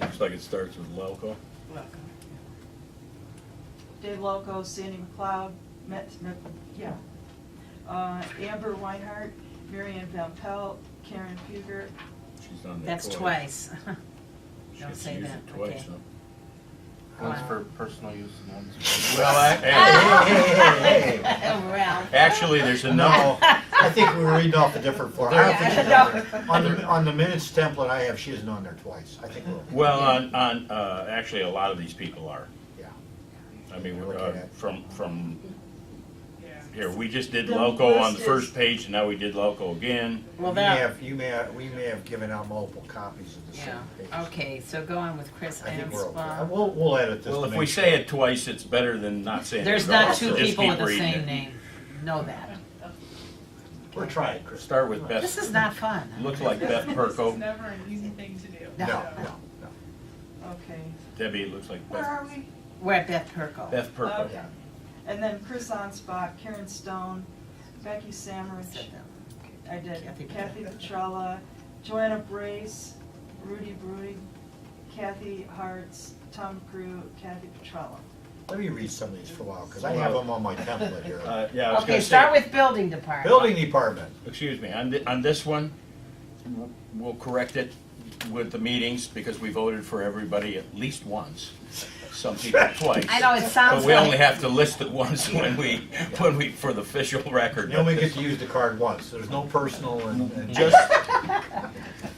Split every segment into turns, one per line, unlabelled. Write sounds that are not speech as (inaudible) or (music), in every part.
Looks like it starts with Lelco.
Welcome.
Dave Loco, Sandy McLeod, Met, Met, yeah, uh, Amber Weinhardt, Marion Van Pelt, Karen Puger,
She's on there.
That's
(laughs)
twice.
She
Don't
gets to
say
use
that,
it twice,
okay.
huh?
One's
Wow.
for personal use and one's for.
Well, I- hey, hey, hey, hey,
(laughs)
hey.
Oh,
Oh.
Well,
Actually, there's a no.
I think we were reading off a different form. I don't think she's
Yeah, I
on there. On the, on the minutes template I have, she isn't on there twice. I think we're,
Well, on, on, uh, actually, a lot of these people are.
yeah.
I mean,
Look
uh,
at-
from, from,
Yeah.
here, we just did
The
Lelco on the
list
first
is-
page, and now we did Lelco again.
well,
You may
that,
have, you may, have- we may have given out multiple copies of the same
yeah,
page.
okay, so go on with Chris
I think we're okay.
Amsbach.
We'll, we'll edit this.
Well,
to
if
make
we
sure.
say it twice, it's better than not saying it
There's
at all,
not
so
two
just
people
keep
with the
reading
same
it.
name, know that.
We're trying, Chris.
Start with
This
Beth,
is not fun.
looks like Beth
It's
Perko.
never an easy thing to do.
No,
No.
no, no.
okay,
Debbie, it looks like
where
Beth,
are we?
We're at Beth Perko.
Beth Perko.
Okay.
And then Chris Onspot, Karen Stone, Becky Samrich,
Sit down.
I did,
Kathy Petrella.
Kathy Petrella, Joanna Brace, Rudy Brody, Kathy Hartz, Tom Crew, Kathy Petrella.
Let me read some of these for a while, because I have them on my template here.
Uh, yeah, I was
Okay,
gonna
start
say,
with building department.
Building Department,
excuse me, on, thi- on this one, w- we'll correct it with the meetings, because we voted for everybody at least once, some people twice.
I know, it sounds
But we only
like,
have to list it once when we, when we, for the official record.
you only get to use the card once, there's no personal and. and-
Just,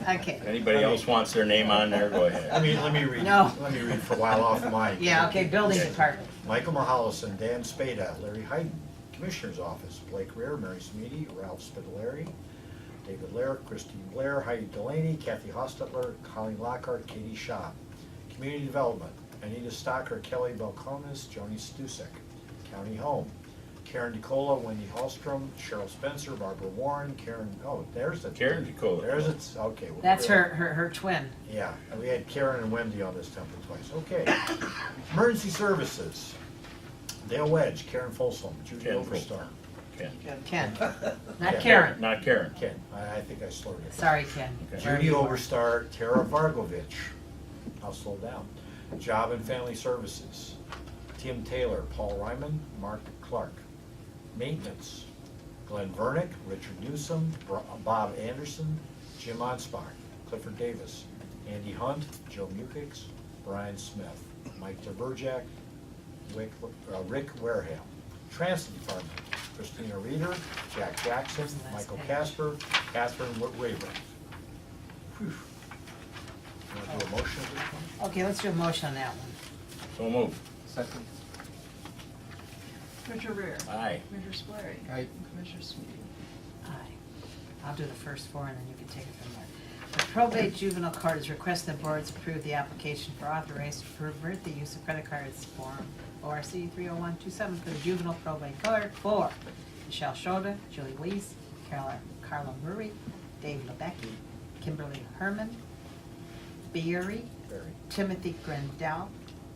okay,
anybody else wants their name on there, go
Let
ahead.
me, let me read,
No.
let me read for a while off mine.
yeah, okay, building department.
Michael Mahollison, Dan Spada, Larry Hayden, Commissioner's Office, Blake Rear, Mary Smitty, Ralph Spitaleri, David Lair, Christine Blair, Heidi Delaney, Kathy Hostetler, Colleen Lockhart, Katie Shaw. Community Development, Anita Stocker, Kelly Belkonis, Joni Stusek. County Home, Karen DeCola, Wendy Hallstrom, Cheryl Spencer, Barbara Warren, Karen, oh, there's the.
Karen DeCola.
There's it, okay. we're
That's
good.
her, her, her twin.
Yeah, and we had Karen and Wendy on this temple twice. Okay. Emergency services. Dale Wedge, Karen Folsom, Judy
Ken
Overstar.
Ken.
Ken,
Yeah.
not Karen.
Not Karen.
Ken, I, I think I slurred it.
Sorry, Ken.
Okay.
Wherever
Judy
you are.
Overstar, Tara Vargovich. I'll slow down. Job and Family Services. Tim Taylor, Paul Ryman, Mark Clark. Maintenance. Glenn Vernick, Richard Newsom, Bro- Bob Anderson, Jim Onsbach, Clifford Davis, Andy Hunt, Joe Mukix, Brian Smith, Mike DeBurjack, Rick, uh, Rick Wareham. Transit Department, Christina Reeder, Jack Jackson,
Where's the last
Michael
page?
Casper, Catherine Wa- Raver. Whew. Want to do a motion at this point?
Okay, let's do a motion on that one.
So moved.
Second.
Commissioner Rear,
Aye.
Commissioner Spillier.
Aye.
and Commissioner Sweetie.
Aye. I'll do the first four, and then you can take it from there. The probate juvenile court is requesting the boards approve the application for authorized to pervert the use of credit cards form ORC 30127 for the juvenile probate court for Michelle Shoda, Julie Weiss, Carla Carla Murray, Dave Lebecki, Kimberly Herman, Beery,
Barry.
Timothy Grandal,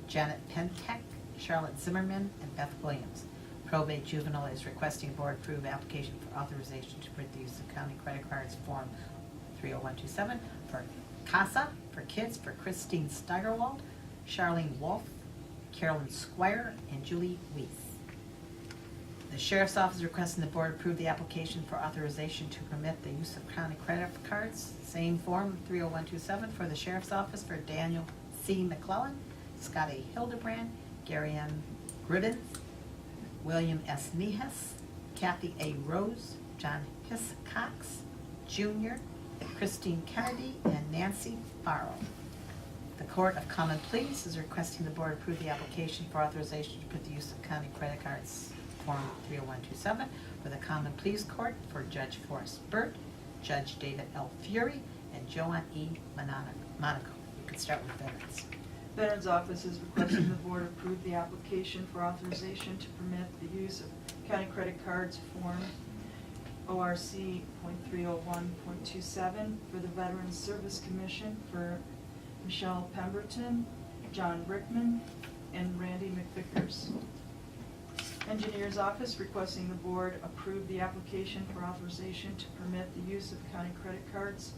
Janet Pentek, Charlotte Zimmerman, and Beth Williams. Probate juvenile is requesting board approve application for authorization to print the use of county credit cards form 30127 for CASA, for kids, for Christine Steigerwald, Charlene Wolf, Carolyn Squire, and Julie Weiss. The sheriff's office is requesting the board approve the application for authorization to permit the use of county credit cards, same form, 30127, for the sheriff's office for Daniel C. McClellan, Scotty Hildebrand, Gary M. Gruden, William S. Nehas, Kathy A. Rose, John Hiss Cox Jr., Christine Kennedy, and Nancy Farrell. The Court of Common Pleas is requesting the board approve the application for authorization to put the use of county credit cards, Form 30127, for the Common Pleas Court for Judge Forrest Burt, Judge David L. Fury, and Joanne E. Monaco. Monaco. You can start with veterans.
Veterans Office is requesting the board approve the application for authorization to permit the use of county credit cards form ORC .301.27 for the Veterans Service Commission for Michelle Pemberton, John Brickman, and Randy McVickers. Engineers Office requesting the board approve the application for authorization to permit the use of county credit cards